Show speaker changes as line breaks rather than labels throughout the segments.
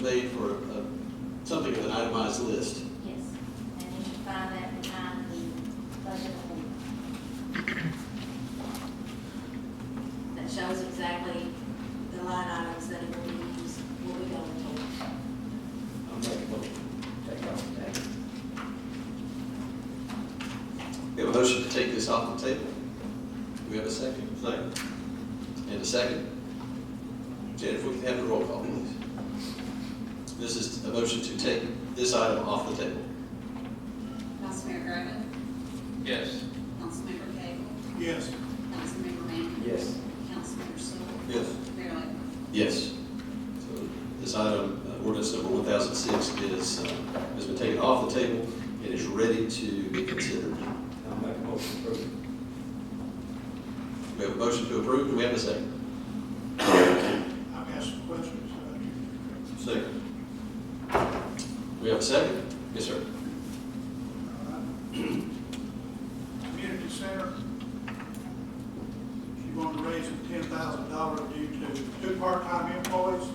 made for a- something of an itemized list.
Yes, and you should find that behind the budget amendment. That shows exactly the line items that it will be used, will be going towards.
I'm making a motion.
Take off the table.
We have a motion to take this off the table. Do we have a second? Second. And a second. Jennifer, we can have the roll call, please. This is a motion to take this item off the table.
Councilmember Griffin.
Yes.
Councilmember Cagle.
Yes.
Councilmember Manning.
Yes.
Councilmember Stoll.
Yes.
Mayor Lambert.
Yes. So This item, uh, ordinance number 1006, is, uh, has been taken off the table and is ready to be considered.
I'll make a motion to approve.
We have a motion to approve. Do we have a second?
I've asked some questions.
Second. We have a second? Yes, sir.
Community center, she wanted to raise it ten thousand dollars due to two part-time employees.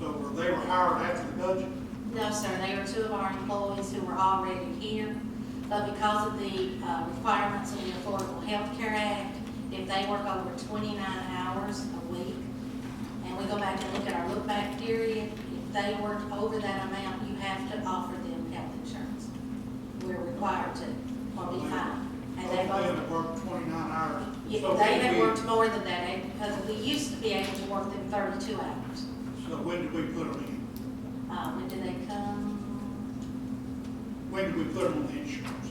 So were- they were hired after the budget.
No, sir, they are two of our employees who were already here, but because of the uh, requirements of the Affordable Health Care Act, if they work over twenty-nine hours a week, and we go back and look at our look-back period, if they work over that amount, you have to offer them health insurance. We're required to, or we fine. And
They
they both,
had worked twenty-nine hours.
yeah,
So
they
when
have
we-
worked more than that, because we used to be able to work them thirty-two hours.
So when did we put them in?
Uh, When did they come?
When did we put them on the insurance?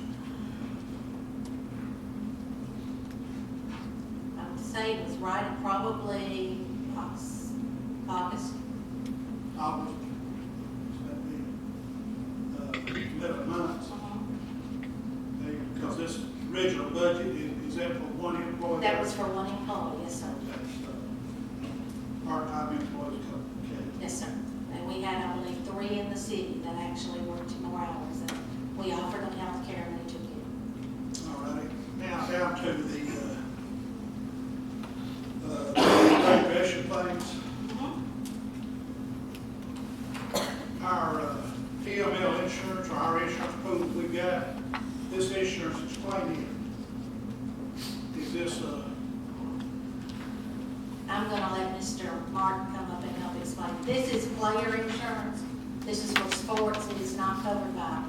I would say it was right at probably August, August.
August? That'd be, uh, eleven months. Because this original budget is, is that for one employee?
That was for one employee, yes, sir.
That's, uh, Part-time employees, okay.
Yes, sir. And we had only three in the city that actually worked more hours, and we offered them health care and they took it.
All righty. Now down to the, uh, uh, recreation things.
Mm-hmm.
Our uh, PML insurance, or our insurance pool that we got, this insurance is claimed here. Is this, uh,
I'm gonna let Mr. Martin come up and help explain. This is player insurance. This is for sports. It is not covered by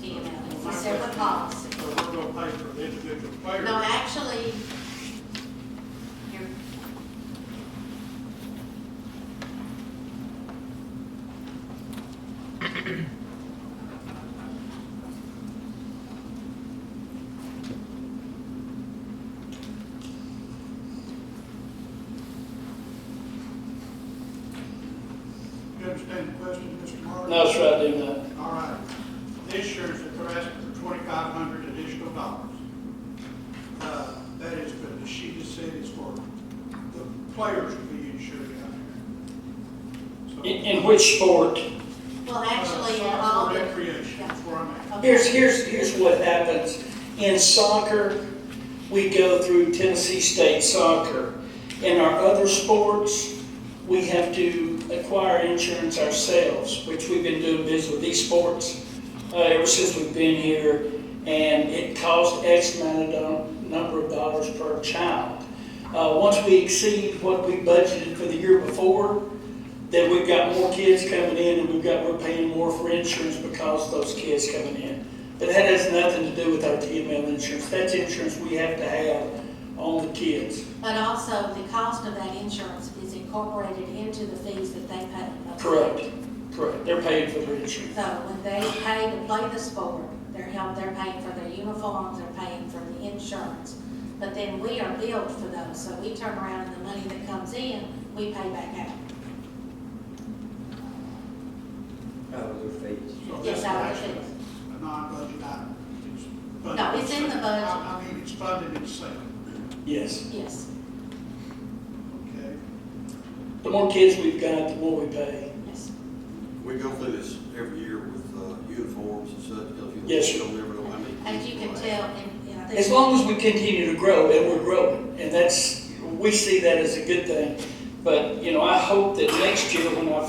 TML. It's a separate policy.
so we're gonna pay for the individual player?
No, actually, here.
You understand the question, Mr. Martin?
No, sir, I do not.
All right. The insurance that they're asking for twenty-five hundred additional dollars. Uh, That is, but the sheet has said it's for the players to be insured out
In,
here.
in which sport?
Well,
So,
actually, in
uh,
all
For
the.
recreation,
Yeah.
that's where I'm at.
Okay.
Here's, here's, here's what happens. In soccer, we go through Tennessee State Soccer. In our other sports, we have to acquire insurance ourselves, which we've been doing business with these sports uh, ever since we've been here, and it costs X amount of do- number of dollars per child. Uh, once we exceed what we budgeted for the year before, then we've got more kids coming in and we've got, we're paying more for insurance because of those kids coming in. But that has nothing to do with our TML insurance. That's insurance we have to have on the kids.
But also, the cost of that insurance is incorporated into the fees that they pay.
Correct, correct. They're paying for their insurance.
So when they pay to play the sport, they're help, they're paying for their uniforms, they're paying for the insurance. But then we are billed for those, so we turn around and the money that comes in, we pay back out.
Out of their fees.
So
Yes,
this is
I would
actually
think.
A non-budget item. It's funded
No, it's in the
itself.
budget.
I I mean, it's funded itself,
Yes.
Yes,
okay?
The more kids we've got, the more we pay.
yes.
We go through this every year with uh, uniforms and such. because you-
Yes, sir.
You don't never know how many.
As you
people
can
are.
tell, and, and I think.
As long as we continue to grow, and we're growing, and that's, we see that as a good thing. But, you know, I hope that next year when I